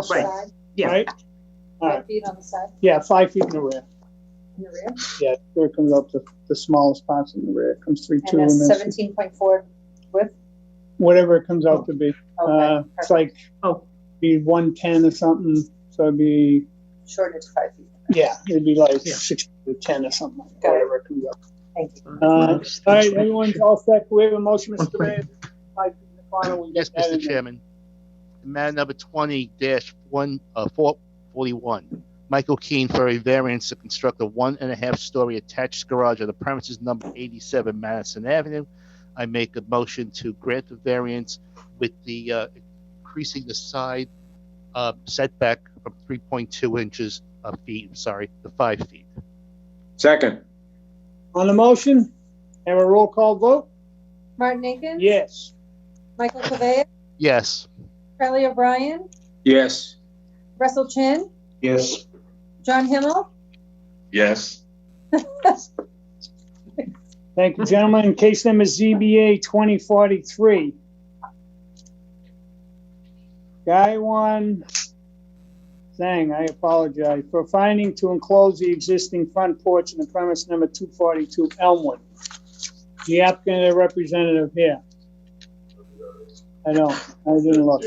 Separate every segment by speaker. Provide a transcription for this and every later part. Speaker 1: the
Speaker 2: Right.
Speaker 1: side,
Speaker 2: Yeah.
Speaker 3: right? All right,
Speaker 1: five feet on the side,
Speaker 3: yeah, five feet in the rear.
Speaker 1: in the rear.
Speaker 3: Yeah, where it comes up, the, the smallest spots in the rear, it comes three, two,
Speaker 1: And
Speaker 3: and
Speaker 1: that's
Speaker 3: then
Speaker 1: seventeen point four width.
Speaker 3: whatever it comes out to be.
Speaker 1: Okay,
Speaker 3: Uh, it's like,
Speaker 2: Oh.
Speaker 3: be one ten or something, so it'd be,
Speaker 1: shorter to five feet.
Speaker 3: yeah, it'd be like
Speaker 2: Yeah.
Speaker 3: six to ten or something, like that,
Speaker 1: Got it.
Speaker 3: whatever it comes out.
Speaker 1: Thank you.
Speaker 3: Uh, All right, everyone's all set, we have a motion, Mr. Mayor. Five feet in the corner, we
Speaker 4: Yes,
Speaker 3: get that in
Speaker 4: Mr.
Speaker 3: there.
Speaker 4: Chairman. Matter number twenty one, uh, four forty-one. Michael Keane for a variance to construct a one and a half story attached garage on the premises number eighty-seven Madison Avenue. I make a motion to grant the variance with the, uh, increasing the side, uh, setback from three point two inches, uh, feet, I'm sorry, to five feet.
Speaker 5: Second,
Speaker 3: On the motion, have a roll call vote?
Speaker 1: Martin Aiken?
Speaker 3: Yes.
Speaker 1: Michael Cavea?
Speaker 4: Yes,
Speaker 1: Charlie O'Brien?
Speaker 5: yes.
Speaker 1: Russell Chin?
Speaker 5: Yes.
Speaker 1: John Himmel?
Speaker 5: Yes.
Speaker 3: Thank you, gentlemen. Case number ZBA 2043. Guy one, Zhang, I apologize, for finding to enclose the existing front porch in the premise number 242 Elmwood. The applicant and representative here. I don't, I didn't look.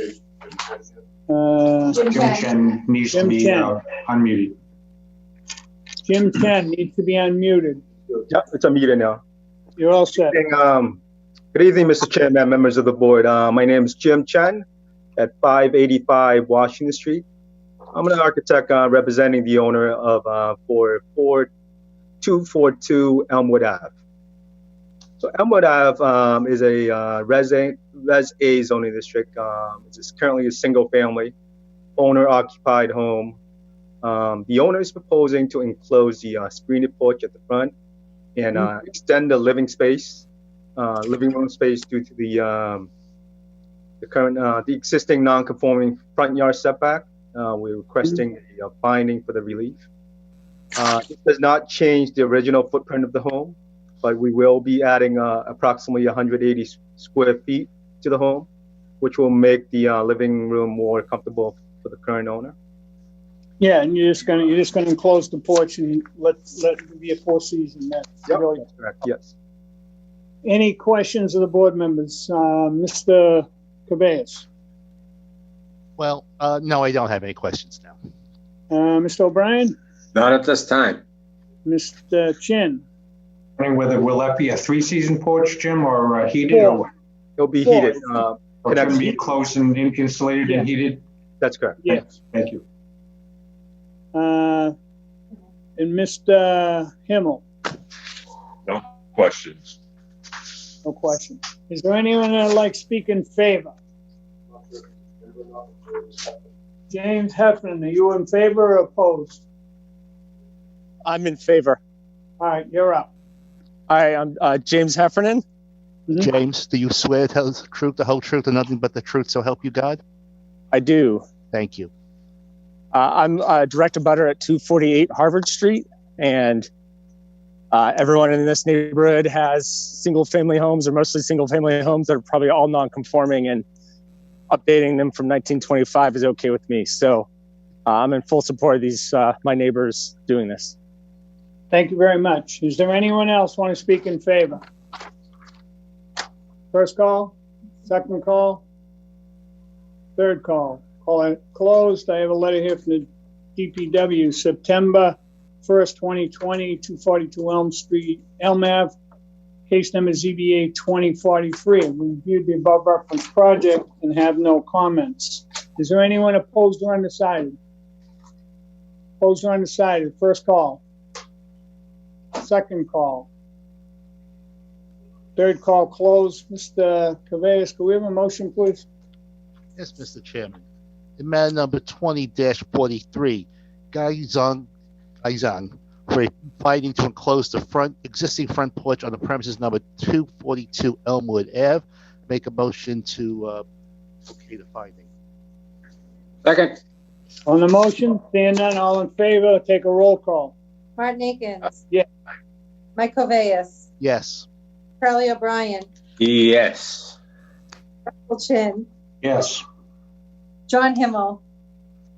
Speaker 3: Uh,
Speaker 5: Jim Chen needs to
Speaker 3: Jim
Speaker 5: be
Speaker 3: Chen.
Speaker 5: uh, unmuted.
Speaker 3: Jim Chen needs to be unmuted.
Speaker 6: Yeah, it's a meeting now.
Speaker 3: You're all set.
Speaker 6: Um, Good evening, Mr. Chairman, members of the board. Uh, My name is Jim Chen at 585 Washington Street. I'm an architect uh, representing the owner of uh, 4242 Elmwood Ave. So Elmwood Ave um, is a uh, resident, Res A zoning district. Um, It's currently a single-family, owner-occupied home. Um, The owner is proposing to enclose the uh, screened porch at the front and uh, extend the living space, uh, living room space due to the um, the current uh, the existing non-conforming front yard setback. Uh, we're requesting a finding for the relief. Uh, it does not change the original footprint of the home, but we will be adding uh, approximately 180 s- square feet to the home, which will make the uh, living room more comfortable for the current owner.
Speaker 3: Yeah, and you're just gonna, you're just gonna enclose the porch and let, let it be a four season net.
Speaker 6: Yep.
Speaker 3: Really.
Speaker 6: Correct. Yes.
Speaker 3: Any questions of the board members? Uh, Mr. Cabeas,
Speaker 4: well, uh, no, I don't have any questions now.
Speaker 3: uh, Mr. O'Brien,
Speaker 5: Not at this time.
Speaker 3: Mr. Chin,
Speaker 7: wondering whether will that be a three-season porch, Jim, or uh, heated, or
Speaker 6: It'll be
Speaker 3: Yeah.
Speaker 6: heated. Uh,
Speaker 7: or it's gonna be closed and in- insulated and heated?
Speaker 6: that's correct.
Speaker 3: yes,
Speaker 7: Thank you.
Speaker 3: uh, and Mr. Himmel,
Speaker 8: questions.
Speaker 3: no question. Is there anyone that'd like to speak in favor? James Heffernan, are you in favor or opposed?
Speaker 9: I'm in favor.
Speaker 3: All right, you're up.
Speaker 9: Hi, I'm uh, James Heffernan.
Speaker 3: Mhm.
Speaker 4: James, do you swear to tell the truth, the whole truth, and nothing but the truth, so help you God?
Speaker 9: I do.
Speaker 4: Thank you.
Speaker 9: Uh, I'm uh, direct abutter at 248 Harvard Street, and uh, everyone in this neighborhood has single-family homes, or mostly single-family homes that are probably all non-conforming, and updating them from 1925 is okay with me. So uh, I'm in full support of these uh, my neighbors doing this.
Speaker 3: Thank you very much. Is there anyone else want to speak in favor? First call, second call, third call. Call it closed. I have a letter here from the DPW, September 1st, 2020, 242 Elm Street, Elm Ave. Case number ZBA 2043. We reviewed the above referenced project and have no comments. Is there anyone opposed or undecided? Opposed or undecided? First call second call. Third call closed. Mr. Cabeas, can we have a motion, please?
Speaker 4: Yes, Mr. Chairman. In matter number twenty forty-three, Guy Zhang, Guy Zhang, for fighting to enclose the front, existing front porch on the premises number two forty-two Elmwood Ave. Make a motion to, uh, okay the finding.
Speaker 5: Second,
Speaker 3: On the motion, seeing none, all in favor, take a roll call.
Speaker 1: Martin Akins?
Speaker 3: Yeah.
Speaker 1: Mike Cavea?
Speaker 4: Yes,
Speaker 1: Charlie O'Brien?
Speaker 5: yes.
Speaker 1: Russell Chin?
Speaker 7: Yes,
Speaker 1: John Himmel?